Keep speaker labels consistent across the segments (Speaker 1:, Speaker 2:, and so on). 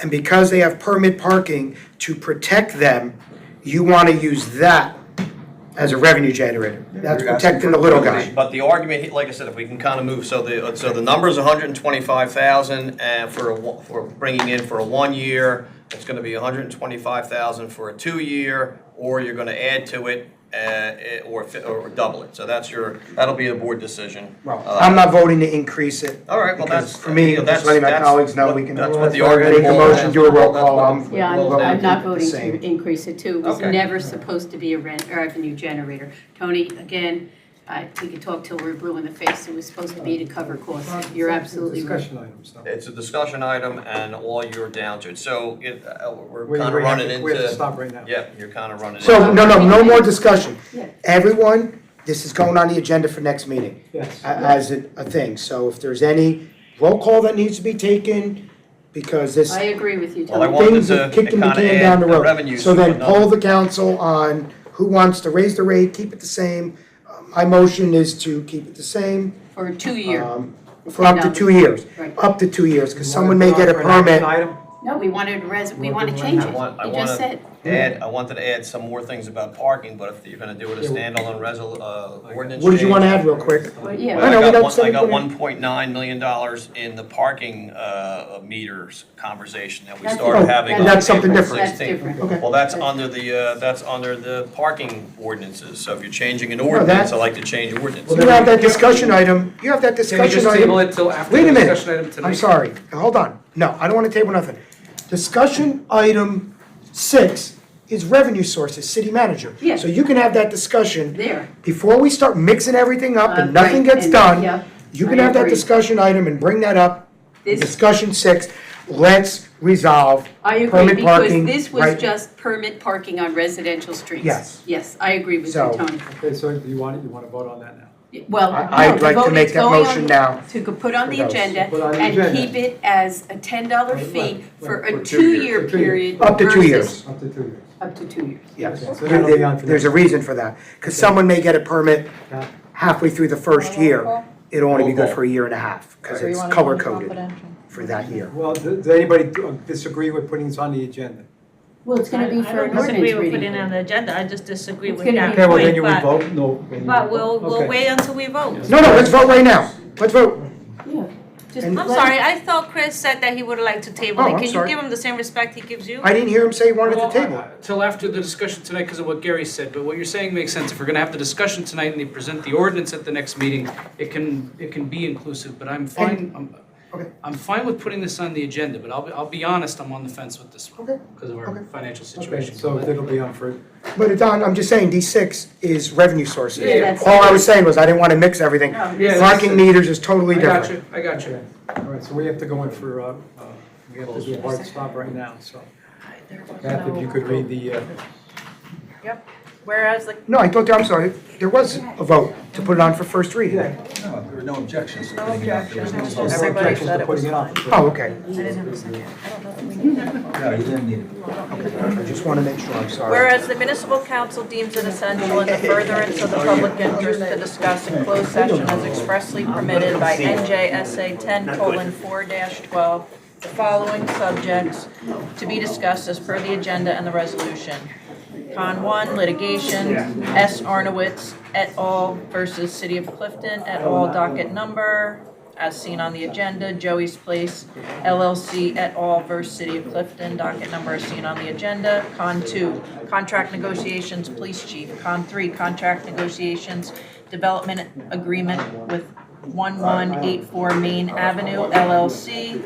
Speaker 1: And because they have permit parking to protect them, you want to use that as a revenue generator. That's
Speaker 2: You're asking
Speaker 1: protecting the little guy.
Speaker 2: for-
Speaker 3: But the argument, like I said, if we can kind of move, so the, so the number's hundred and twenty-five thousand, and for a, one- for bringing in for a one-year, it's gonna be hundred and twenty-five thousand for a two-year, or you're gonna add to it, uh, eh, or, fi- or double it, so that's your, that'll be a board decision.
Speaker 1: Well,
Speaker 3: Uh,
Speaker 1: I'm not voting to increase it.
Speaker 3: All right, well,
Speaker 1: because
Speaker 3: that's-
Speaker 1: For me,
Speaker 3: you know,
Speaker 1: just
Speaker 3: that's-
Speaker 1: letting my
Speaker 3: that's
Speaker 1: colleagues know
Speaker 3: what-
Speaker 1: we can.
Speaker 3: that's what the
Speaker 1: Make a
Speaker 3: argument
Speaker 1: motion,
Speaker 3: was.
Speaker 1: do a roll
Speaker 3: That's what-
Speaker 1: call. I'm.
Speaker 4: Yeah,
Speaker 1: we'll
Speaker 4: I'm,
Speaker 1: vote
Speaker 4: I'm not
Speaker 1: the
Speaker 4: voting
Speaker 1: same.
Speaker 4: to increase it too. It was
Speaker 3: Okay.
Speaker 4: never supposed to be a rent, a revenue generator. Tony, again, I, we could talk till we're blue in the face. It was supposed to be to cover costs. You're absolutely right.
Speaker 2: Discussion items, though.
Speaker 3: It's a discussion item, and all you're down to, so it, uh, we're
Speaker 2: We-
Speaker 3: kind of
Speaker 2: we have to-
Speaker 3: running into.
Speaker 2: We have to stop right now.
Speaker 3: Yeah, you're kind of running.
Speaker 1: So,
Speaker 3: into-
Speaker 1: no, no, no more discussion.
Speaker 4: Yeah.
Speaker 1: Everyone, this is going on the agenda for next meeting
Speaker 2: Yes.
Speaker 1: a- as a a thing. So if there's any roll call that needs to be taken, because this
Speaker 4: I agree with you,
Speaker 3: Well, I
Speaker 4: Tony.
Speaker 3: wanted
Speaker 1: things
Speaker 3: to
Speaker 1: are kicking the
Speaker 3: kinda
Speaker 1: can
Speaker 3: add
Speaker 1: down the
Speaker 3: the
Speaker 1: road.
Speaker 3: revenues
Speaker 1: So
Speaker 3: to
Speaker 1: then
Speaker 3: another.
Speaker 1: poll the council on who wants to raise the rate, keep it the same. Uh, My motion is to keep it the same
Speaker 4: For a two-year.
Speaker 1: um, for up to two years.
Speaker 4: Right.
Speaker 1: Up to two years, because
Speaker 2: You
Speaker 1: someone
Speaker 2: wanna
Speaker 1: may get a
Speaker 2: put on for an
Speaker 1: permit.
Speaker 2: action
Speaker 4: No, we wanted res, we
Speaker 2: We're
Speaker 4: want to
Speaker 2: doing
Speaker 4: change
Speaker 2: that.
Speaker 4: it.
Speaker 3: I want- I
Speaker 4: You just
Speaker 3: wanna-
Speaker 4: said.
Speaker 3: Add, I wanted to add some more things about parking, but if you're gonna do it as
Speaker 2: Yeah, we-
Speaker 3: standalone resol, uh, ordinance.
Speaker 1: What did you want to
Speaker 3: change-
Speaker 1: add real quick?
Speaker 4: Well, yeah.
Speaker 3: Well,
Speaker 1: No, no, we
Speaker 3: I
Speaker 1: don't
Speaker 3: got one,
Speaker 1: say
Speaker 3: I got
Speaker 1: what it-
Speaker 3: one point nine million dollars in the parking, uh, meters conversation that we
Speaker 4: That's
Speaker 3: started
Speaker 1: different.
Speaker 3: having
Speaker 1: Oh,
Speaker 3: on April
Speaker 1: that's something
Speaker 3: sixteenth.
Speaker 1: different.
Speaker 4: That's different.
Speaker 1: Okay.
Speaker 3: Well, that's under the, uh, that's under the parking ordinances, so if you're changing an
Speaker 1: that's-
Speaker 3: ordinance, I like to change ordinance.
Speaker 1: You have that discussion item, you have that
Speaker 5: Can we
Speaker 1: discussion
Speaker 5: just table
Speaker 1: item.
Speaker 5: it till after
Speaker 1: Wait a
Speaker 5: the
Speaker 1: minute.
Speaker 5: discussion item tonight?
Speaker 1: I'm sorry, hold on. No, I don't want to table nothing. Discussion item six is revenue sources, city manager.
Speaker 4: Yeah.
Speaker 1: So you can have that discussion.
Speaker 4: There.
Speaker 1: before we start mixing everything up and
Speaker 4: Uh,
Speaker 1: nothing
Speaker 4: right,
Speaker 1: gets
Speaker 4: and-
Speaker 1: done,
Speaker 4: yeah,
Speaker 1: you can
Speaker 4: I
Speaker 1: have that
Speaker 4: agree.
Speaker 1: discussion item and bring that up. in
Speaker 4: This-
Speaker 1: Discussion six, let's resolve
Speaker 4: I agree,
Speaker 1: permit
Speaker 4: because
Speaker 1: parking,
Speaker 4: this was
Speaker 1: right?
Speaker 4: just permit parking on residential streets.
Speaker 1: Yes.
Speaker 4: Yes, I agree with you,
Speaker 1: So-
Speaker 4: Tony.
Speaker 2: item. Okay, so you want, you want to vote on that now?
Speaker 4: Well,
Speaker 1: I- I'd
Speaker 4: no, the
Speaker 1: like to
Speaker 4: vote
Speaker 1: make
Speaker 4: is
Speaker 1: that
Speaker 4: going on
Speaker 1: motion
Speaker 4: the-
Speaker 1: now
Speaker 4: To go- put on
Speaker 1: for
Speaker 4: the
Speaker 1: those.
Speaker 4: agenda
Speaker 2: Put on the
Speaker 4: and
Speaker 2: agenda.
Speaker 4: keep it as a ten dollar
Speaker 2: Right,
Speaker 4: fee
Speaker 2: right,
Speaker 4: for
Speaker 2: right,
Speaker 4: a
Speaker 2: for two
Speaker 4: two-year
Speaker 2: years, for two years.
Speaker 4: period.
Speaker 1: Up to two
Speaker 4: versus-
Speaker 1: years.
Speaker 2: Up to two years.
Speaker 4: Up to two years.
Speaker 1: Yes,
Speaker 2: Okay, so that'll be on for
Speaker 1: there's a
Speaker 2: next-
Speaker 1: reason for that, because someone may get a permit
Speaker 2: Yeah.
Speaker 1: halfway through the first year. It'll only be good
Speaker 3: Roll call.
Speaker 1: for a year and a half, because
Speaker 6: So you
Speaker 1: it's
Speaker 6: want it to be
Speaker 1: color coded
Speaker 6: confidential.
Speaker 1: for that year.
Speaker 2: Well, d- does anybody uh, disagree with putting this on the agenda?
Speaker 4: Well, it's gonna be
Speaker 7: I-
Speaker 4: for an
Speaker 7: I don't
Speaker 4: ordinance
Speaker 7: disagree with putting it
Speaker 4: reading.
Speaker 7: on the agenda, I just disagree
Speaker 4: It's
Speaker 7: with
Speaker 4: gonna
Speaker 7: that
Speaker 4: be-
Speaker 2: Okay, well, then you would
Speaker 7: point,
Speaker 2: vote, no. then
Speaker 7: but,
Speaker 2: you
Speaker 7: but
Speaker 2: would
Speaker 7: we'll,
Speaker 2: vote.
Speaker 7: we'll
Speaker 2: Okay.
Speaker 7: wait until we vote.
Speaker 1: No, no, let's vote right now. Let's vote.
Speaker 4: Yeah, just
Speaker 1: And-
Speaker 7: I'm
Speaker 4: let-
Speaker 7: sorry, I thought Chris said that he would like to table
Speaker 1: Oh,
Speaker 7: it,
Speaker 1: I'm
Speaker 7: can you
Speaker 1: sorry.
Speaker 7: give him the same respect he gives you?
Speaker 1: I didn't hear him say he wanted to
Speaker 5: Well,
Speaker 1: table.
Speaker 5: uh,
Speaker 1: it.
Speaker 5: Till after the discussion tonight because of what Gary said, but what you're saying makes sense. If we're gonna have the discussion tonight and they present the ordinance at the next meeting, it can, it can be inclusive, but I'm fine, I'm,
Speaker 1: Okay.
Speaker 5: I'm fine with putting this on the agenda, but I'll, be- I'll be honest, I'm on the fence with this
Speaker 1: Okay,
Speaker 5: one because of
Speaker 1: okay.
Speaker 5: our financial
Speaker 2: Okay,
Speaker 5: situation.
Speaker 2: so it'll be on for,
Speaker 1: But Don, I'm just saying, D6 is revenue sources.
Speaker 5: Yeah, that's-
Speaker 1: All I was saying was I didn't want to mix everything.
Speaker 4: No,
Speaker 5: Yeah,
Speaker 4: this-
Speaker 5: that's-
Speaker 1: Parking meters is totally
Speaker 5: I
Speaker 1: different.
Speaker 5: got you, I got you.
Speaker 2: all right, so we have to go in for, uh, uh, we have to do a hard stop right now, so. Beth, if you could read the, uh,
Speaker 7: Yep, whereas like,
Speaker 1: No, I thought, there- I'm sorry, there was a vote to put it on for first reading.
Speaker 2: yeah.
Speaker 8: No, there were no objections to putting it up. There was
Speaker 2: no
Speaker 8: no-
Speaker 6: Everybody
Speaker 2: objections
Speaker 6: said
Speaker 2: to
Speaker 6: it was
Speaker 2: putting it on.
Speaker 1: Oh, okay.
Speaker 8: No, you didn't need it.
Speaker 1: I just want to make sure, I'm sorry.
Speaker 7: whereas the municipal council deems it essential in the furtherance of the public interest to discuss in closed session as expressly permitted by NJSA ten colon four twelve, the following subjects to be discussed as per the agenda and the resolution. Con one, litigation, S. Arnowitz et al. versus City of Clifton et al. docket number, as seen on the agenda, Joey's Place LLC et al. versus City of Clifton, docket number as seen on the agenda. Con two, contract negotiations, police chief. Con three, contract negotiations, development agreement with 1184 Main Avenue LLC.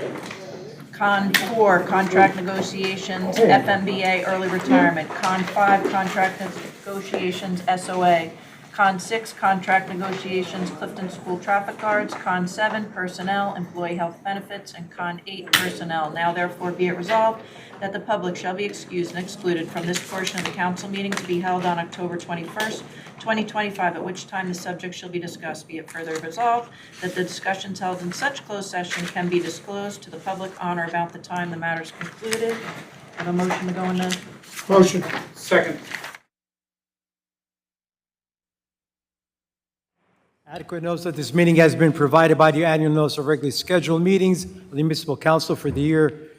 Speaker 7: Con four, contract negotiations, FMBA early retirement. Con five, contract negotiations, SOA. Con six, contract negotiations, Clifton School traffic guards. Con seven, personnel, employee health benefits. And con eight, personnel. Now therefore be it resolved that the public shall be excused and excluded from this portion of the council meeting to be held on October 21st, 2025, at which time the subject shall be discussed. Be it further resolved that the discussions held in such closed session can be disclosed to the public on or about the time the matter is concluded. Have a motion to go into
Speaker 1: Motion.
Speaker 5: Second.
Speaker 9: Adequate notice that this meeting has been provided by the annual notice of regularly scheduled meetings of the municipal council for the year